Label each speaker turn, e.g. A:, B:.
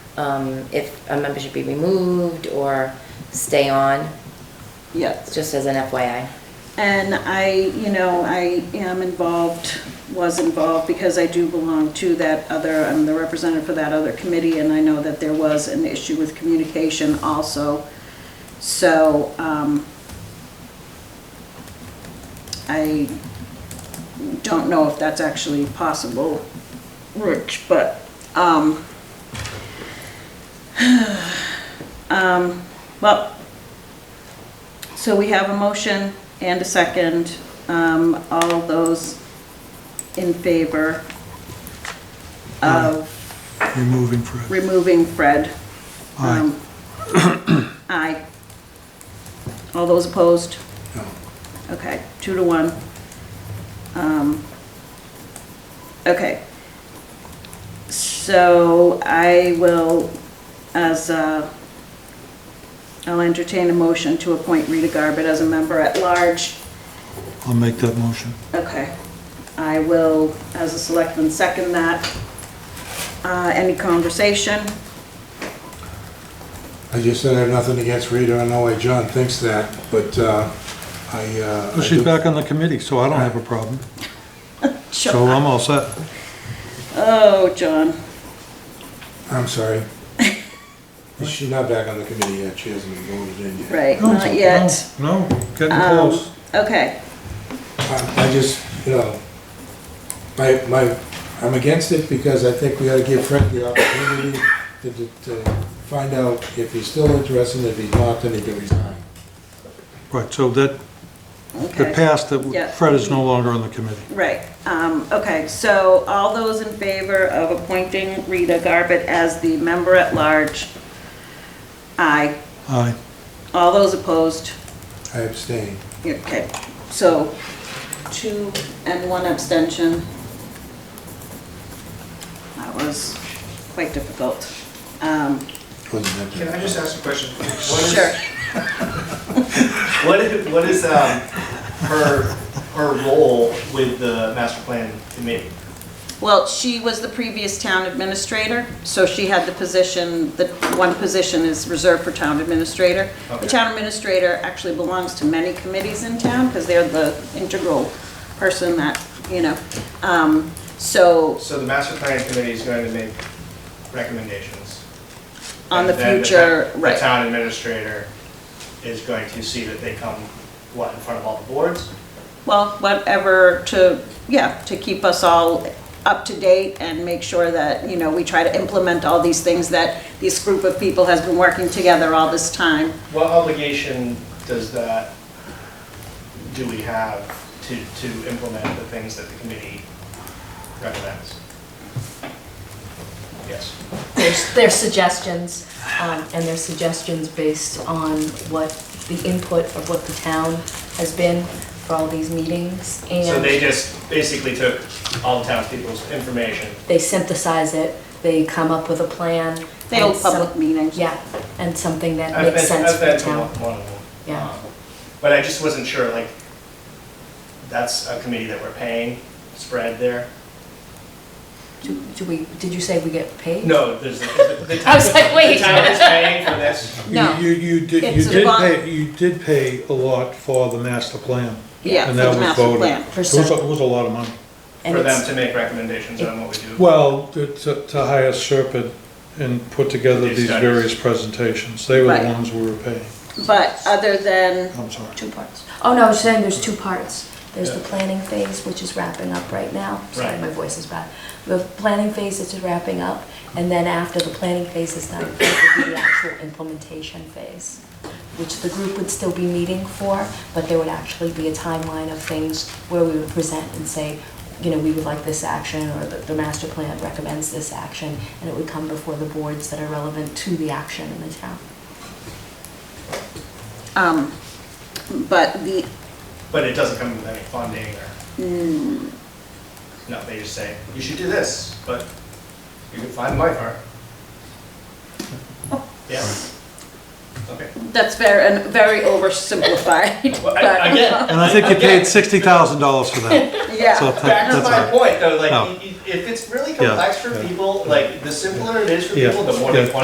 A: um, if a member should be removed or stay on,
B: Yes.
A: just as an FYI.
B: And I, you know, I am involved, was involved, because I do belong to that other, I'm the representative for that other committee, and I know that there was an issue with communication also. So, um, I don't know if that's actually possible, Rich, but, um, um, well, so we have a motion and a second. Um, All those in favor of
C: removing Fred.
B: removing Fred?
C: Aye.
B: Um, Aye. All those opposed?
C: No.
B: Okay, two to one. Um, Okay. So I will, as, uh, I'll entertain a motion to appoint Rita Garbutt as a member at large
C: I'll make that motion.
B: Okay. I will, as a selectman, second that. Uh, Any conversation?
D: I just said I have nothing against Rita, I know why John thinks that, but uh, I... uh,
C: Well,
D: I
C: she's
D: do-
C: back on the committee, so I don't have a problem. So
B: John-
C: I'm all set.
B: Oh, John.
D: I'm sorry. She's not back on the committee yet, she hasn't been voted in yet.
B: Right, not yet.
C: No, no, getting
B: Um,
C: close.
B: Okay,
D: Um, I I just, you know, my, my, I'm against it because I think we ought to give Frank the opportunity to, to- to find out if he's still interested, and if he's not, then he can resign.
C: Right, so that, the
B: okay.
C: past
B: Yeah.
C: that Fred is no longer on the committee.
B: Right, um, okay, so all those in favor of appointing Rita Garbutt as the member at large? Aye.
C: Aye.
B: All those opposed?
D: I abstain.
B: Okay, so two and one abstention. That was quite difficult. Um,
D: Wasn't
E: Can
D: that-
E: I just ask a question? What is-
B: Sure.
E: What is, what is, um, her, her role with the master plan committee?
B: Well, she was the previous town administrator, so she had the position, the one position is reserved for town administrator. The
E: Okay.
B: town administrator actually belongs to many committees in town because they're the integral person that, you know. Um, So
E: So the master plan committee is going to make recommendations.
B: on the
E: And then
B: future,
E: ta- The
B: right,
E: town administrator is going to see that they come, what, in front of all the boards?
B: well, whatever to, yeah, to keep us all up to date and make sure that, you know, we try to implement all these things that this group of people has been working together all this time.
E: What obligation does that, do we have to, to implement the things that the committee recommends? Yes.
F: their their suggestions, um, and their suggestions based on what the input of what the town has been for all these meetings,
E: So they
F: and
E: just basically took all the townspeople's information.
F: they synthesize it, they come up with a plan.
B: They hold
F: and some-
B: public meetings.
F: Yeah, and something that
E: I've
F: makes
E: been,
F: sense
E: I've
F: for the
E: been to one
F: town.
E: one of them.
F: Yeah.
E: Um, But I just wasn't sure, like, that's a committee that we're paying, spread there?
F: Do do we, did you say we get paid?
E: No, there's, the- the the
F: I
E: town,
F: was like,
E: the
F: wait.
E: town is paying for this.
F: No.
C: You, you you did,
B: It's
C: you
B: a
C: did
B: bond.
C: pay, you did pay a lot for the master plan.
B: Yeah,
C: And
B: for
C: that
B: the
C: was
B: master
C: voted.
B: plan.
C: It was, a- it was a lot of money.
F: And
E: For them
F: it's,
E: to make recommendations on what we do.
C: Well, to, to to hire Serpent and put together
E: These
C: these
E: studies.
C: various presentations, they were the
B: Right.
C: ones we were paying.
B: But other than,
C: I'm sorry.
F: two parts. Oh, no, I was saying there's two parts. There's the
E: Yeah.
F: planning phase, which is wrapping up right now. Sorry,
E: Right.
F: my voice is bad. The planning phase is wrapping up, and then after the planning phase is done, it would be the actual implementation phase, which the group would still be meeting for, but there would actually be a timeline of things where we would present and say, you know, we would like this action, or the, the master plan recommends this action, and it would come before the boards that are relevant to the action in the town.
B: um, but the,
E: But it doesn't come with any funding or.
F: Hmm.
E: No, they just say, you should do this, but you can find my part. Yeah. Okay.
B: that's very, and very oversimplified.
E: Well, I-
B: but-
E: Again,
C: And I think you paid sixty thousand dollars for that. So
B: Yeah,
C: that-
E: back to
C: that's
E: my
C: all.
E: point though, like,
C: No.
E: y- y- if it's really
C: Yeah,
E: complex for
C: yeah,
E: people, like, the simpler it is for
C: Yeah,
E: people, the more they
C: yeah.
E: want